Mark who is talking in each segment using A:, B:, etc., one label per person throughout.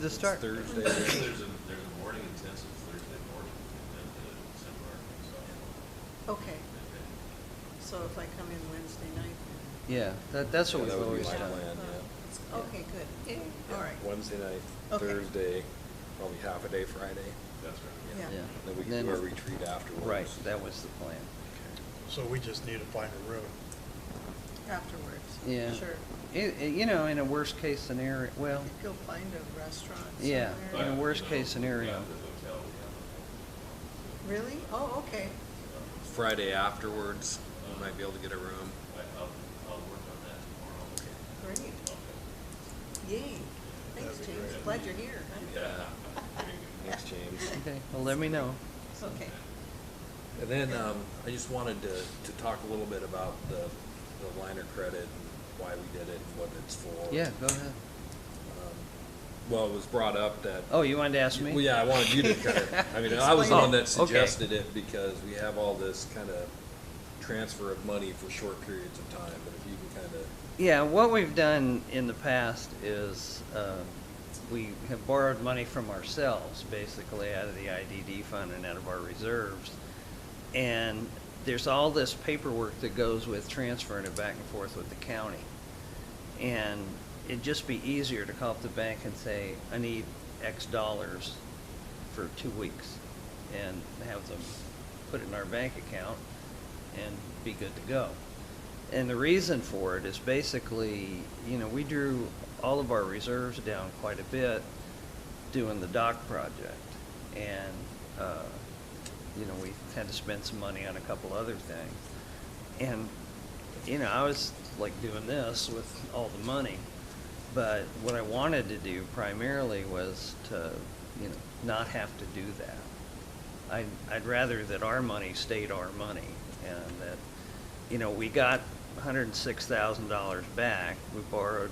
A: To start.
B: Thursday.
C: There's a, there's a morning intensive Thursday morning at the Central Arkansas.
D: Okay, so if I come in Wednesday night?
A: Yeah, that, that's what we've
B: Yeah, that would be
A: always
B: my
A: done.
B: plan. yeah.
D: uh, Okay, good, Eh, all right.
B: Wednesday night,
D: Okay.
B: Thursday, probably half a day Friday.
C: That's right.
D: Yeah.
B: And Then we can
A: Then-
B: do our retreat afterwards.
A: Right, that was the plan.
E: So we just need to find a room.
D: Afterwards.
A: Yeah.
D: Sure.
A: I- I- you know, in a worst case scenario, well,
D: Go find a restaurant
A: Yeah.
D: somewhere.
C: But,
A: In a
C: you
A: worst
C: know,
A: case scenario.
C: at the hotel, we have a-
D: Really? Oh, okay,
B: Friday afterwards, we might be able to get a room.
C: I- I'll, I'll work on that tomorrow.
D: great.
C: Okay.
D: Yay. Thanks,
E: That'd be
D: James,
E: great.
D: glad you're here.
C: Yeah. Very good.
B: Thanks, James.
A: okay, well, let me know.
D: Okay.
B: And then, um, I just wanted to, to talk a little bit about the, the liner credit and why we did it and what it's for.
A: Yeah, go ahead.
B: Um, Well, it was brought up that.
A: Oh, you wanted to ask me?
B: Well, yeah, I wanted you to kind of, I mean, I was the
A: Explain
B: one
A: it.
B: that
A: Oh, okay.
B: suggested it because we have all this kind of transfer of money for short periods of time, but if you can kind of
A: Yeah, what we've done in the past is, um, we have borrowed money from ourselves, basically out of the IDD fund and out of our reserves. And there's all this paperwork that goes with transferring it back and forth with the county. And it'd just be easier to call up the bank and say, I need X dollars for two weeks and have them put it in our bank account and be good to go. And the reason for it is basically, you know, we drew all of our reserves down quite a bit doing the dock project. And, uh, you know, we had to spend some money on a couple other things. And, you know, I was like doing this with all the money. But what I wanted to do primarily was to, you know, not have to do that. I, I'd rather that our money stayed our money and that, you know, we got hundred and six thousand dollars back. We borrowed,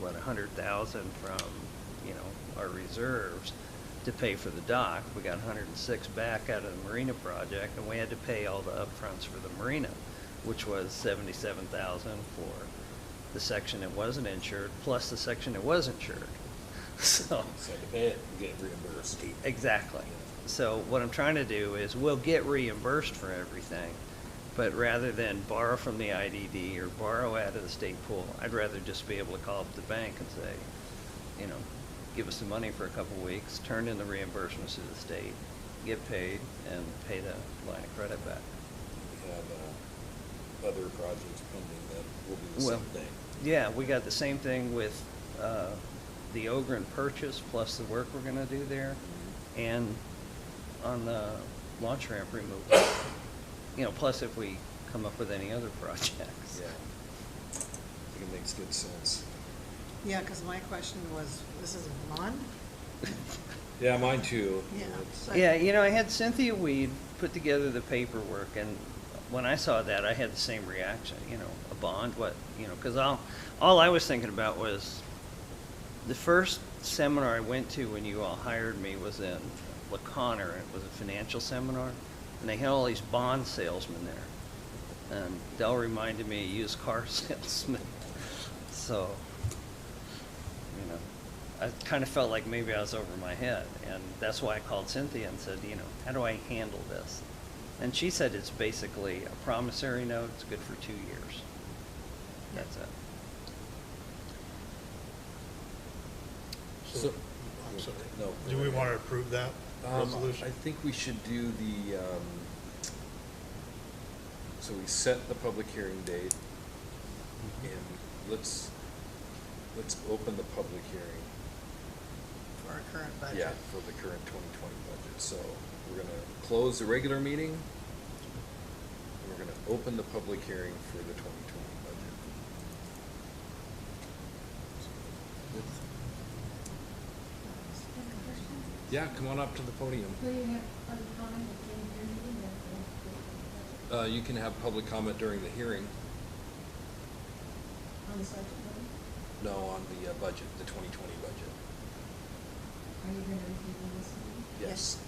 A: what, a hundred thousand from, you know, our reserves to pay for the dock. We got hundred and six back out of the marina project and we had to pay all the upfronts for the marina, which was seventy-seven thousand for the section that wasn't insured, plus the section that was insured. So,
B: say, eh, get reimbursed.
A: Exactly. So what I'm trying to do is we'll get reimbursed for everything, but rather than borrow from the IDD or borrow out of the state pool, I'd rather just be able to call up the bank and say, you know, give us the money for a couple weeks, turn in the reimbursements to the state, get paid, and pay the line of credit back.
B: We have uh, other projects pending that will be the
A: Well,
B: same thing.
A: Yeah, we got the same thing with uh, the Ogren purchase, plus the work we're gonna do there, and on the launch ramp removal. You know, plus if we come up with any other projects.
B: Yeah. I think it makes good sense.
D: Yeah, because my question was, this is a bond?
B: Yeah, mine too.
D: Yeah.
B: It's-
A: Yeah, you know, I had Cynthia Weed put together the paperwork, and when I saw that, I had the same reaction, you know, a bond, what, you know, because all, all I was thinking about was, the first seminar I went to when you all hired me was in LaConner, and it was a financial seminar, and they had all these bond salesmen there. And Dell reminded me of used car salesman, so, you know, I kind of felt like maybe I was over my head, and that's why I called Cynthia and said, you know, how do I handle this? And she said it's basically a promissory note, it's good for two years. That's it.
B: So-
E: I'm sorry.
B: No.
E: Do we want to approve that
B: Um,
E: resolution?
B: I think we should do the, um, so we set the public hearing date, and let's, let's open the public hearing.
D: For our current budget?
B: Yeah, for the current twenty twenty budget, so we're gonna close the regular meeting, and we're gonna open the public hearing for the twenty twenty budget. Yeah, come on up to the podium.
F: Will you have public comment at the end of your meeting or at the end of the
B: Uh, you can have public comment during the hearing,
F: budget? On the subject matter?
B: no, on the uh, budget, the twenty twenty budget.
F: Are you going to review this meeting?
B: Yes.